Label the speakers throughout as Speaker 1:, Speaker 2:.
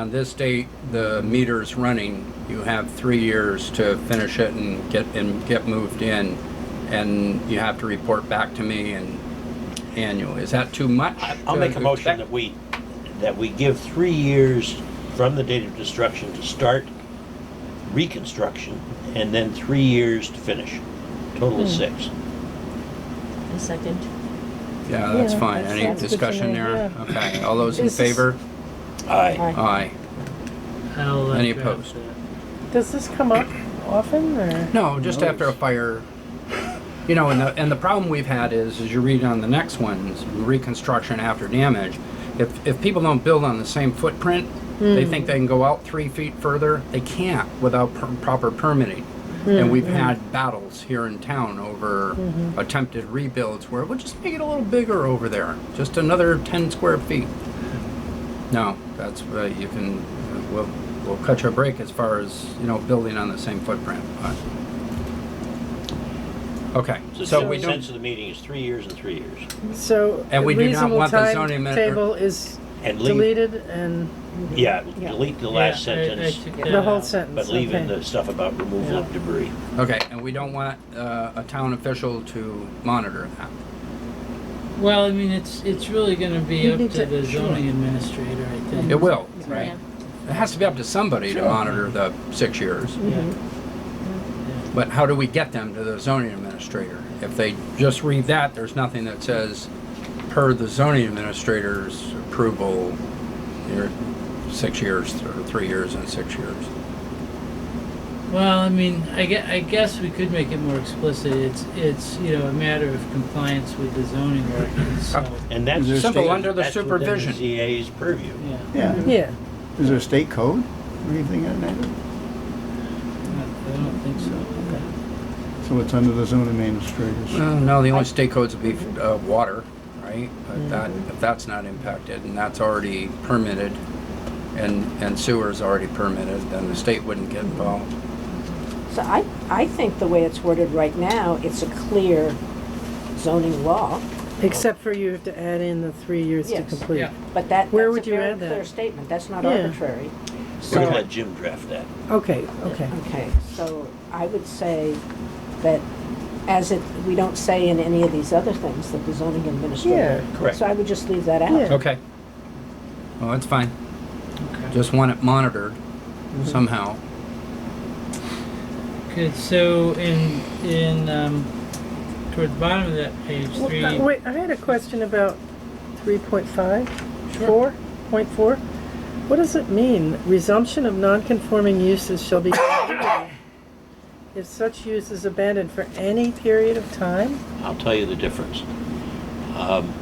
Speaker 1: On this date, the meter's running. You have three years to finish it and get, and get moved in. And you have to report back to me and annual. Is that too much?
Speaker 2: I'll
Speaker 1: to
Speaker 2: make a motion
Speaker 1: expect?
Speaker 2: that we, that we give three years from the date of destruction to start reconstruction, and then three years to finish. Total
Speaker 3: Hmm.
Speaker 2: is six.
Speaker 4: A second.
Speaker 1: Yeah, that's
Speaker 3: Yeah,
Speaker 1: fine.
Speaker 3: that
Speaker 1: Any
Speaker 3: sounds good to
Speaker 1: discussion
Speaker 3: me,
Speaker 1: there?
Speaker 3: yeah.
Speaker 1: Okay, all those in
Speaker 3: This is-
Speaker 1: favor?
Speaker 2: Aye.
Speaker 3: Aye.
Speaker 1: Aye.
Speaker 5: I'll, uh,
Speaker 1: Any
Speaker 5: draft
Speaker 1: opposed?
Speaker 5: that.
Speaker 3: Does this come up often or?
Speaker 1: No, just after a fire. You know, and the, and the problem we've had is, as you read on the next ones, reconstruction after damage. If, if people don't build on the same footprint, they think they can go out three feet further. They can't without per- proper permitting. And we've had battles here in town over attempted rebuilds where we'll just make it a little bigger over there, just another 10 square feet. No, that's, uh, you can, we'll, we'll cut your break as far as, you know, building on the same footprint, but. Okay, so
Speaker 2: So
Speaker 1: we
Speaker 2: the sense
Speaker 1: don't,
Speaker 2: of the meeting is three years and three years.
Speaker 3: So.
Speaker 1: And we do not
Speaker 3: reasonable
Speaker 1: want the
Speaker 3: time
Speaker 1: zoning amendment-
Speaker 3: Table is
Speaker 2: And leave,
Speaker 3: deleted and
Speaker 2: yeah,
Speaker 3: Yeah.
Speaker 2: delete the
Speaker 5: Yeah,
Speaker 2: last
Speaker 5: I- I
Speaker 2: sentence,
Speaker 5: took that
Speaker 3: the whole
Speaker 5: out.
Speaker 3: sentence.
Speaker 2: but leave in
Speaker 3: okay.
Speaker 2: the stuff about removal of debris.
Speaker 1: okay, and we don't want, uh, a town official to monitor that.
Speaker 5: Well, I mean, it's, it's really gonna be
Speaker 3: You
Speaker 5: up
Speaker 3: need
Speaker 5: to
Speaker 3: to-
Speaker 5: the
Speaker 3: sure.
Speaker 5: zoning administrator, I think.
Speaker 1: It will,
Speaker 5: Right.
Speaker 1: it has to be up to somebody to monitor the six years.
Speaker 5: Yeah.
Speaker 3: Mm-hmm.
Speaker 1: But how do we get them to the zoning administrator? If they just read that, there's nothing that says, per the zoning administrator's approval, you're six years, or three years and six years.
Speaker 5: Well, I mean, I guess, I guess we could make it more explicit. It's, it's, you know, a matter of compliance with the zoning ordinance, so,
Speaker 2: And that's.
Speaker 6: Is there
Speaker 1: Simple,
Speaker 6: state-
Speaker 1: under the
Speaker 2: that's within
Speaker 1: supervision.
Speaker 2: ZA's purview.
Speaker 5: yeah.
Speaker 6: Yeah,
Speaker 3: Yeah,
Speaker 6: is there a state code or anything in that?
Speaker 5: I I don't think so.
Speaker 6: So it's under the zoning administrators.
Speaker 1: Well, no, the only state codes would be uh, water, right? If that, if that's not impacted, and that's already permitted, and, and sewer's already permitted, then the state wouldn't get involved.
Speaker 7: So I, I think the way it's worded right now, it's a clear zoning law,
Speaker 3: except for you have to add in the three years to
Speaker 7: Yes.
Speaker 3: complete.
Speaker 5: Yeah.
Speaker 7: but that,
Speaker 3: Where
Speaker 7: that's
Speaker 3: would
Speaker 7: a
Speaker 3: you
Speaker 7: very
Speaker 3: add that?
Speaker 7: clear statement, that's not
Speaker 3: Yeah.
Speaker 7: arbitrary.
Speaker 2: We're gonna
Speaker 7: So,
Speaker 2: let Jim draft that.
Speaker 3: Okay, okay.
Speaker 7: okay, so I would say that as it, we don't say in any of these other things that the zoning administrator.
Speaker 3: Yeah.
Speaker 2: Correct.
Speaker 7: So I would just leave that
Speaker 3: Yeah.
Speaker 7: out.
Speaker 1: Okay. Well, that's fine. Mm-hmm.
Speaker 5: Okay.
Speaker 1: Just want it monitored somehow.
Speaker 5: Good, so in, in, um, toward the bottom of that page, three.
Speaker 3: Well, uh, Wait, I had a question about three point five,
Speaker 5: Sure.
Speaker 3: four, point four. What does it mean? Resumption of non-conforming uses shall be continued if such use is abandoned for any period of time?
Speaker 2: I'll tell you the difference. Um,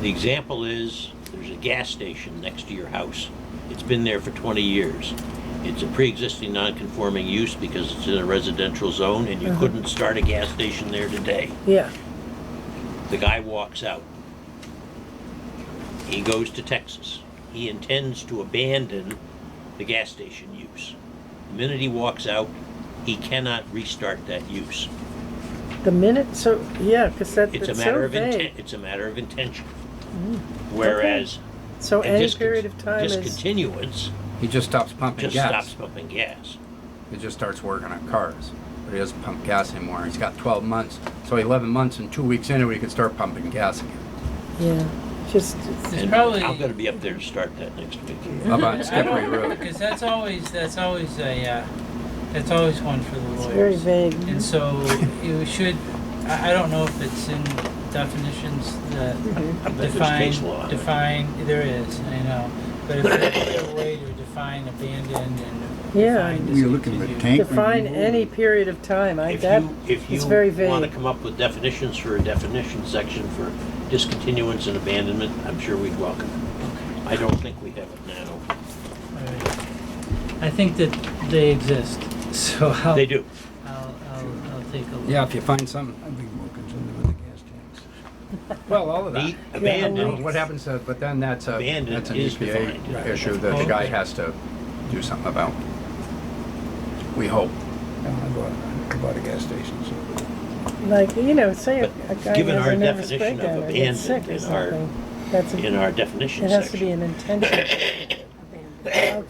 Speaker 2: The example is, there's a gas station next to your house. It's been there for 20 years. It's a pre-existing non-conforming use because it's in a residential zone and you couldn't start a gas station there today.
Speaker 3: Yeah,
Speaker 2: The guy walks out. He goes to Texas. He intends to abandon the gas station use. The minute he walks out, he cannot restart that use.
Speaker 3: the minute, so, yeah, because that,
Speaker 2: It's a
Speaker 3: it's
Speaker 2: matter
Speaker 3: so
Speaker 2: of intent,
Speaker 3: vague.
Speaker 2: it's a matter of intention. Whereas. a
Speaker 3: So Oh, any
Speaker 2: discon-
Speaker 3: period of time is,
Speaker 2: Discontinuance
Speaker 1: He just stops pumping
Speaker 2: just stops
Speaker 1: gas.
Speaker 2: pumping gas.
Speaker 1: He just starts working on cars. But he doesn't pump gas anymore. He's got 12 months. So 11 months and two weeks into it, he could start pumping gas again.
Speaker 3: yeah, just,
Speaker 5: It's
Speaker 2: And
Speaker 5: probably- Um,
Speaker 2: I'm gonna be up there to start that next week.
Speaker 1: How about
Speaker 5: I
Speaker 1: Skippery
Speaker 5: don't know,
Speaker 1: Road?
Speaker 5: Cause that's always, that's always a, uh, that's always one for the lawyers.
Speaker 3: it's very vague.
Speaker 5: And so you should, I, I don't know if it's in definitions that
Speaker 2: I bet Mm-hmm. there's
Speaker 5: define,
Speaker 2: case law.
Speaker 5: define, there is, I know. But if there's a way to define abandoned and
Speaker 3: Yeah.
Speaker 5: define
Speaker 6: You're looking at
Speaker 5: discontinued.
Speaker 6: tank.
Speaker 3: Define
Speaker 6: removal.
Speaker 3: any period of time, I,
Speaker 2: If
Speaker 3: that,
Speaker 2: you, if
Speaker 3: it's very
Speaker 2: you
Speaker 3: vague.
Speaker 2: wanna come up with definitions for a definition section for discontinuance and abandonment, I'm sure we'd welcome it. I don't think we have it now.
Speaker 5: Alright. I think that they exist, so I'll,
Speaker 2: They do.
Speaker 5: I'll, I'll, I'll take a look.
Speaker 1: Yeah, if you find something.
Speaker 6: I'd be more concerned with the gas tanks.
Speaker 1: Well, all of that.
Speaker 2: Neat,
Speaker 1: Well,
Speaker 2: Abandoned,
Speaker 1: What happens, to- but then that's a,
Speaker 2: Abandoned
Speaker 1: that's an
Speaker 2: is defined,
Speaker 1: EPA
Speaker 2: right.
Speaker 1: issue that the guy has to do something about. We hope.
Speaker 6: Yeah, I bought, I bought a gas station, so.
Speaker 3: Like, you know, say a a guy
Speaker 2: given
Speaker 3: has
Speaker 2: our
Speaker 3: a nervous
Speaker 2: definition of
Speaker 3: breakdown or gets
Speaker 2: abandoned
Speaker 3: sick or
Speaker 2: in our-
Speaker 3: something, that's,
Speaker 2: in
Speaker 3: a-
Speaker 2: our definition
Speaker 3: it has to be
Speaker 2: section.
Speaker 3: an intention.
Speaker 7: Abandoned.